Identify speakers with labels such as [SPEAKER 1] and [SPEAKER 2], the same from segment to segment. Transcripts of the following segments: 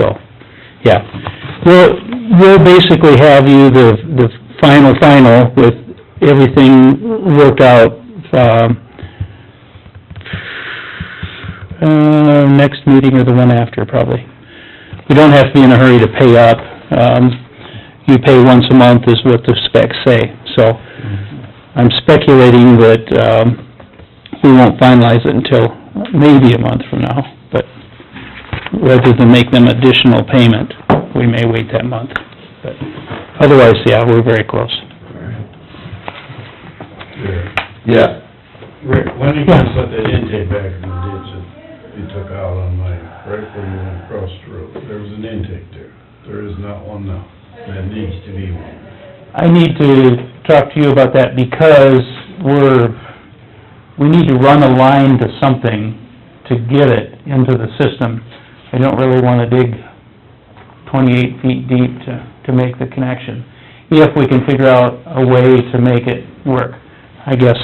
[SPEAKER 1] so, yeah. We'll, we'll basically have you the, the final, final with everything worked out, um, uh, next meeting or the one after, probably. We don't have to be in a hurry to pay up. Um, you pay once a month is what the specs say, so I'm speculating that, um, we won't finalize it until maybe a month from now, but rather than make them additional payment, we may wait that month. But otherwise, yeah, we're very close.
[SPEAKER 2] Yeah.
[SPEAKER 3] Rick, when are you gonna put that intake back in the ditch that you took out on my, right where you went across the road? There was an intake there. There is not one now. That needs to be one.
[SPEAKER 1] I need to talk to you about that because we're, we need to run a line to something to get it into the system. I don't really wanna dig twenty-eight feet deep to, to make the connection, if we can figure out a way to make it work, I guess.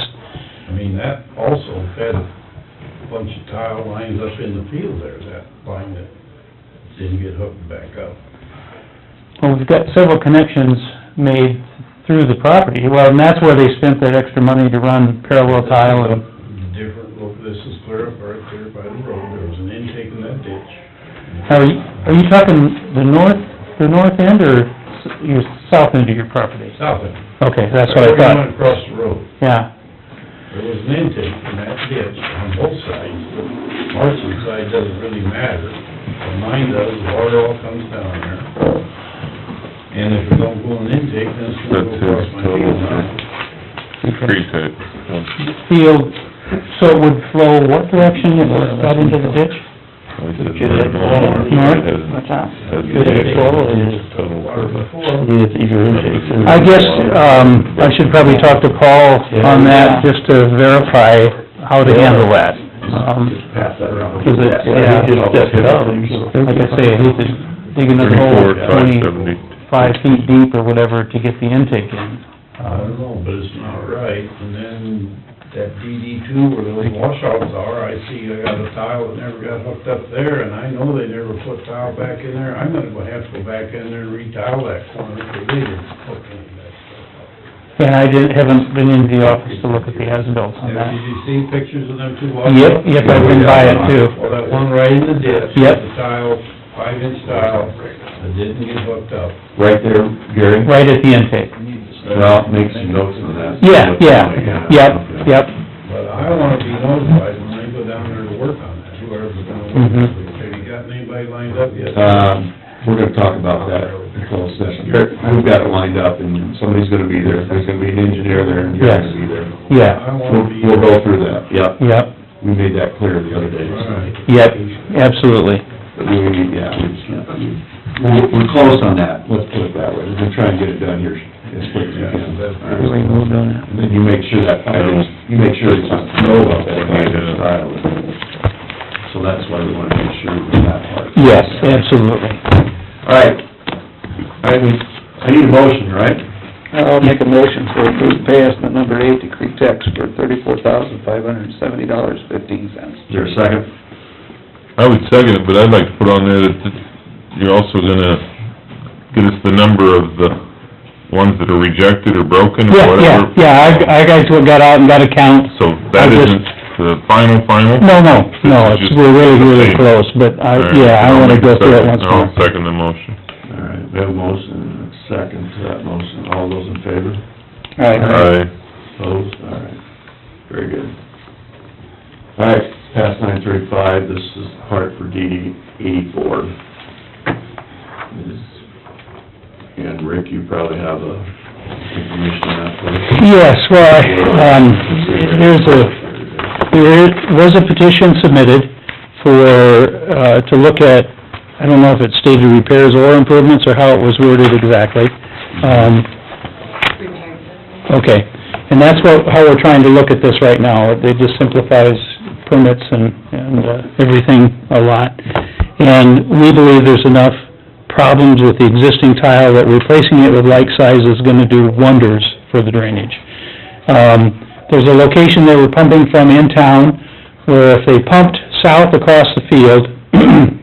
[SPEAKER 3] I mean, that also had a bunch of tile lines up in the field there, that line that didn't get hooked back up.
[SPEAKER 1] Well, we've got several connections made through the property, well, and that's where they spent that extra money to run parallel tile and
[SPEAKER 3] Different, look, this is clear up right there by the road. There was an intake in that ditch.
[SPEAKER 1] Are you, are you talking the north, the north end or s- your south end of your property?
[SPEAKER 3] Stop it.
[SPEAKER 1] Okay, that's what I
[SPEAKER 3] Right where you went
[SPEAKER 1] thought,
[SPEAKER 3] across the road.
[SPEAKER 1] yeah.
[SPEAKER 3] There was an intake in that ditch on both sides. Marcy's side doesn't really matter, but mine does, water all comes down there. And if it don't go in intake, then it's gonna go
[SPEAKER 2] That's
[SPEAKER 3] across
[SPEAKER 2] his
[SPEAKER 3] my
[SPEAKER 2] total,
[SPEAKER 3] field now.
[SPEAKER 2] Creek that,
[SPEAKER 1] Field, so it would flow what direction, it would out into the ditch?
[SPEAKER 4] What's that?
[SPEAKER 3] Water before,
[SPEAKER 1] I guess, um, I should probably talk to Paul on that, just to verify how to handle that. Um,
[SPEAKER 3] pass that around.
[SPEAKER 1] cause it's, yeah, like I say, I hate to dig another hole twenty-five feet deep or whatever to get the intake in.
[SPEAKER 3] I don't know, but it's not right. And then that DD two where those washouts are, I see I got a tile that never got hooked up there, and I know they never put tile back in there. I'm gonna go have to go back in there and re-tile that corner because they didn't hook any of that stuff up.
[SPEAKER 1] And I didn't, haven't been into the office to look at the as-built on
[SPEAKER 3] Now,
[SPEAKER 1] that.
[SPEAKER 3] Did you see pictures of them two walking?
[SPEAKER 1] Yep, yep, I've been by it too.
[SPEAKER 3] Well, that one right in the ditch.
[SPEAKER 1] Yep.
[SPEAKER 3] The tile, five inch tile, that didn't get hooked up.
[SPEAKER 2] Right there, Gary?
[SPEAKER 1] Right at the intake.
[SPEAKER 2] Well, make some notes on that.
[SPEAKER 1] Yeah, yeah, yep, yep.
[SPEAKER 3] But I wanna be notified when they go down there to work on that, whoever's gonna work. on
[SPEAKER 2] Mm-hmm.
[SPEAKER 3] it. Have you gotten anybody lined up yet?
[SPEAKER 2] Um, we're gonna talk about that in closed session. We've got it lined up and somebody's gonna be there. There's gonna be an engineer there and you're gonna be there.
[SPEAKER 1] Yeah,
[SPEAKER 3] I wanna
[SPEAKER 2] We'll,
[SPEAKER 3] be.
[SPEAKER 2] we'll go through that, yep.
[SPEAKER 1] yep,
[SPEAKER 2] We made that clear the other day. so.
[SPEAKER 3] Alright.
[SPEAKER 1] yep, absolutely.
[SPEAKER 2] We, yeah, we we're, we're close on that, let's put it that way, we're gonna try and get it done here as quick as we can.
[SPEAKER 3] Yeah.
[SPEAKER 2] And then you make sure that, I think, you make sure it's not snow up there, like the style. So that's why we wanna make sure we that part.
[SPEAKER 1] Yes, absolutely.
[SPEAKER 2] All right, I need, I need a motion, right?
[SPEAKER 4] I'll make a motion for approved pay estimate number eight to Creek Techs for thirty-four thousand, five hundred and seventy dollars, fifteen cents.
[SPEAKER 2] Is there a second?
[SPEAKER 5] I would second it, but I'd like to put on there that you're also gonna get us the number of the ones that are rejected or broken or
[SPEAKER 1] Yeah, yeah,
[SPEAKER 5] whatever.
[SPEAKER 1] yeah, I, I guys got out and got a count.
[SPEAKER 5] So
[SPEAKER 1] I
[SPEAKER 5] that
[SPEAKER 1] just-
[SPEAKER 5] isn't the final, final?
[SPEAKER 1] No, no, no, it's, we're really, really close, but I,
[SPEAKER 5] All right,
[SPEAKER 1] yeah, I
[SPEAKER 5] I'll
[SPEAKER 1] wanna
[SPEAKER 5] make
[SPEAKER 1] go
[SPEAKER 5] a
[SPEAKER 1] through it
[SPEAKER 5] second.
[SPEAKER 1] once more.
[SPEAKER 5] I'll second the motion.
[SPEAKER 2] All right, we have a motion, and a second to that motion, all those in favor?
[SPEAKER 5] Aye.
[SPEAKER 2] Opposed, all right, very good. All right, past nine thirty-five, this is part for DD eighty-four. And Rick, you probably have a information on that for us.
[SPEAKER 1] Yes, well, I, um, there's a, There was a petition submitted for, uh, to look at, I don't know if it stated repairs or improvements, or how it was worded exactly. Um, okay, and that's what, how we're trying to look at this right now. It just simplifies permits and, and uh, everything a lot. And we believe there's enough problems with the existing tile that replacing it with like size is gonna do wonders for the drainage. Um, there's a location they were pumping from in town, where if they pumped south across the field,